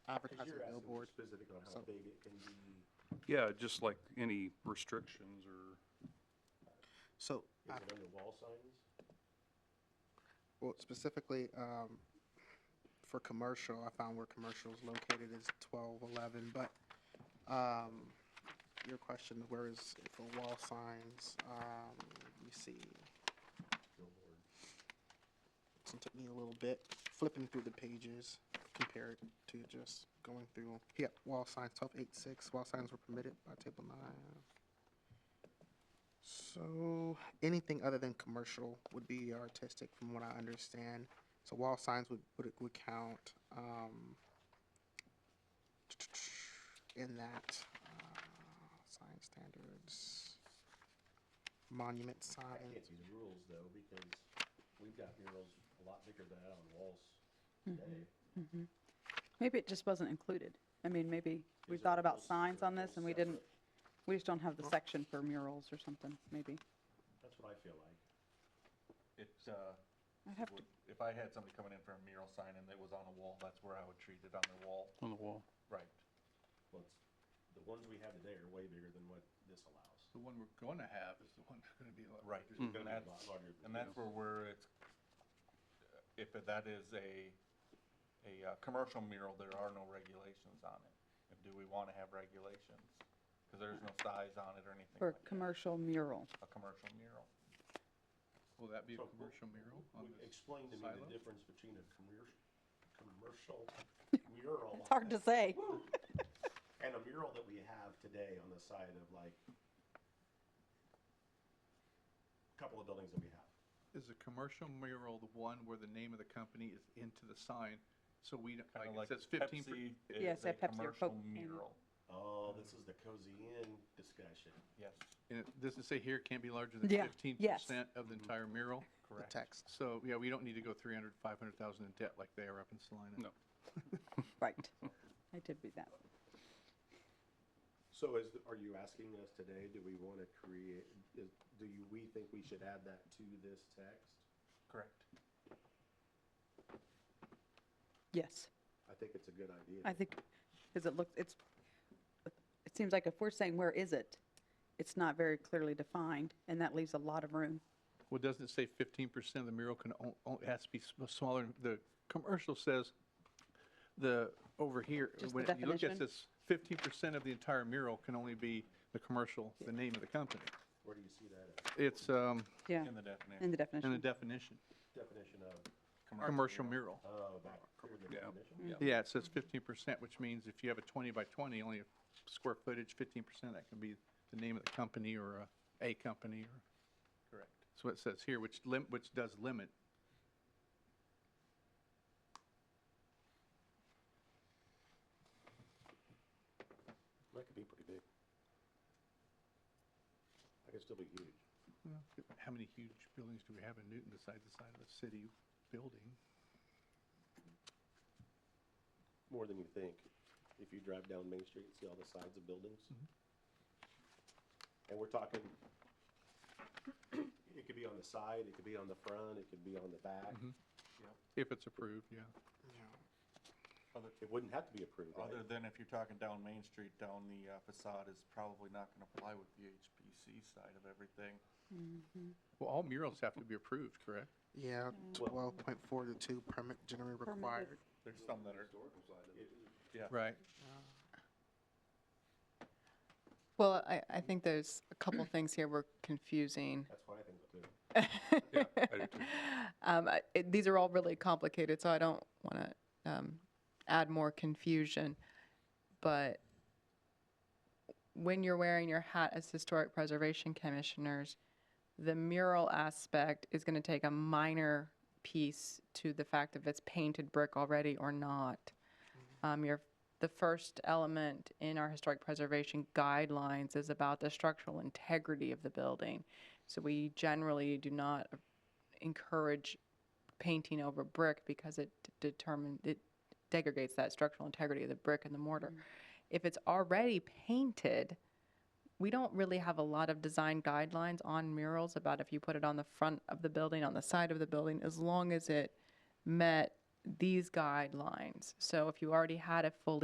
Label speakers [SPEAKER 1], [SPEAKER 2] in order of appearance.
[SPEAKER 1] Because
[SPEAKER 2] advertise
[SPEAKER 1] you're
[SPEAKER 2] a
[SPEAKER 1] asking
[SPEAKER 2] billboard.
[SPEAKER 1] Specific on how
[SPEAKER 2] So-
[SPEAKER 1] big it can be.
[SPEAKER 3] Yeah, just like any restrictions or,
[SPEAKER 2] So, uh,
[SPEAKER 1] Is it under wall signs?
[SPEAKER 2] well, specifically, um, for commercial, I found where commercial is located is twelve eleven, but, um, your question, where is it for wall signs, um, let me see.
[SPEAKER 1] Billboard.
[SPEAKER 2] It took me a little bit flipping through the pages compared to just going through. Yep, wall signs, twelve eight six, wall signs were permitted by table nine. So anything other than commercial would be artistic from what I understand. So wall signs would, would, would count, um, in that, uh, sign standards, monument
[SPEAKER 1] I
[SPEAKER 2] sign.
[SPEAKER 1] can't see the rules though, because we've got murals a lot bigger than that on walls
[SPEAKER 4] Mm-hmm.
[SPEAKER 1] today.
[SPEAKER 4] Maybe it just wasn't included. I mean, maybe we
[SPEAKER 1] Is it
[SPEAKER 4] thought about
[SPEAKER 1] almost-
[SPEAKER 4] signs
[SPEAKER 1] they're
[SPEAKER 4] on this
[SPEAKER 1] almost
[SPEAKER 4] and we didn't,
[SPEAKER 1] separate?
[SPEAKER 4] we just don't have the section for murals or something, maybe.
[SPEAKER 1] That's what I feel like.
[SPEAKER 5] It, uh,
[SPEAKER 4] I'd have to,
[SPEAKER 5] would- if I had somebody coming in for a mural sign and it was on a wall, that's where I would treat it on the wall.
[SPEAKER 3] on the wall.
[SPEAKER 5] Right.
[SPEAKER 1] Well, it's, the ones we have today are way bigger than what this allows.
[SPEAKER 6] The one we're gonna have is the one that's gonna be a lot
[SPEAKER 5] Right.
[SPEAKER 6] larger.
[SPEAKER 3] Mm.
[SPEAKER 5] And
[SPEAKER 1] Gonna be a
[SPEAKER 5] that's,
[SPEAKER 1] lot larger than
[SPEAKER 5] and that's
[SPEAKER 1] this.
[SPEAKER 5] where we're, it's, if that is a, a, uh, commercial mural, there are no regulations on it. And do we wanna have regulations? Cause there's no size on it or anything
[SPEAKER 4] for
[SPEAKER 5] like that.
[SPEAKER 4] commercial mural.
[SPEAKER 5] A commercial mural.
[SPEAKER 6] Will that be a
[SPEAKER 1] So, w-
[SPEAKER 6] commercial mural on
[SPEAKER 1] Would-
[SPEAKER 6] this?
[SPEAKER 1] Explain to me
[SPEAKER 6] silo?
[SPEAKER 1] the difference between a commercial, commercial mural.
[SPEAKER 4] It's hard to say.
[SPEAKER 1] And a mural that we have today on the side of like a couple of buildings that we have.
[SPEAKER 6] Is a commercial mural the one where the name of the company is into the sign? So we, don't-
[SPEAKER 5] Kinda
[SPEAKER 6] like,
[SPEAKER 5] like
[SPEAKER 6] it says fifteen. per-
[SPEAKER 5] Pepsi
[SPEAKER 4] Yeah,
[SPEAKER 5] is
[SPEAKER 4] say
[SPEAKER 5] a
[SPEAKER 4] Pepsi or
[SPEAKER 5] commercial
[SPEAKER 4] Coke can.
[SPEAKER 5] mural.
[SPEAKER 1] Oh, this is the cozy inn discussion.
[SPEAKER 5] Yes,
[SPEAKER 6] And it doesn't say here it can't be larger than
[SPEAKER 4] Yeah,
[SPEAKER 6] fifteen
[SPEAKER 4] yes.
[SPEAKER 6] percent of the entire mural.
[SPEAKER 2] The
[SPEAKER 5] correct.
[SPEAKER 2] text.
[SPEAKER 6] So, yeah, we don't need to go three hundred, five hundred thousand in debt like they are up in Salina.
[SPEAKER 3] No.
[SPEAKER 4] Right. I did read that.
[SPEAKER 1] So is, are you asking us today, do we want to create, is, do you, we think we should add that to this text?
[SPEAKER 5] Correct.
[SPEAKER 4] Yes,
[SPEAKER 1] I think it's a good idea.
[SPEAKER 4] I think, because it looks, it's, it seems like if we're saying, where is it? It's not very clearly defined and that leaves a lot of room.
[SPEAKER 6] Well, doesn't it say fifteen percent of the mural can, o- o- it has to be sm- smaller? The commercial says the, over here,
[SPEAKER 4] Just the
[SPEAKER 6] when you look
[SPEAKER 4] definition?
[SPEAKER 6] at this, fifteen percent of the entire mural can only be the commercial, the name of the company.
[SPEAKER 1] Where do you see that at?
[SPEAKER 6] It's, um,
[SPEAKER 4] Yeah,
[SPEAKER 5] In the definition.
[SPEAKER 4] in the
[SPEAKER 6] in the
[SPEAKER 4] definition.
[SPEAKER 6] definition,
[SPEAKER 1] Definition of,
[SPEAKER 6] commercial mural.
[SPEAKER 1] oh, back here in the
[SPEAKER 3] Yeah.
[SPEAKER 1] definition?
[SPEAKER 6] Yeah, it says fifteen percent, which means if you have a twenty by twenty, only a square footage, fifteen percent, that can be the name of the company or a, a company or.
[SPEAKER 5] Correct.
[SPEAKER 6] So it says here, which lim, which does limit.
[SPEAKER 1] That could be pretty big. That could still be huge.
[SPEAKER 6] Well, How many huge buildings do we have in Newton besides the side of the city building?
[SPEAKER 1] More than you think. If you drive down Main Street and see all the sides of buildings. And we're talking, it could be on the side, it could be on the front, it could be on the back.
[SPEAKER 6] If it's approved, yeah.
[SPEAKER 1] It wouldn't have to be approved, right?
[SPEAKER 5] Other than if you're talking down Main Street, down the uh, facade is probably not gonna fly with the HPC side of everything.
[SPEAKER 4] Mm-hmm.
[SPEAKER 6] Well, all murals have to be approved, correct?
[SPEAKER 2] Yeah, twelve point four to two permit generally required.
[SPEAKER 5] There's some that are,
[SPEAKER 6] Right.
[SPEAKER 7] Well, I, I think there's a couple things here we're confusing.
[SPEAKER 1] That's what I think too.
[SPEAKER 3] Yeah, I do too.
[SPEAKER 7] Um, I- it- These are all really complicated, so I don't want to add more confusion. But when you're wearing your hat as Historic Preservation Commissioners, the mural aspect is going to take a minor piece to the fact if it's painted brick already or not. Um, your, the first element in our historic preservation guidelines is about the structural integrity of the building. So we generally do not encourage painting over brick because it determines, it degrades that structural integrity of the brick and the mortar. If it's already painted, we don't really have a lot of design guidelines on murals about if you put it on the front of the building, on the side of the building, as long as it met these guidelines. So if you already had a fully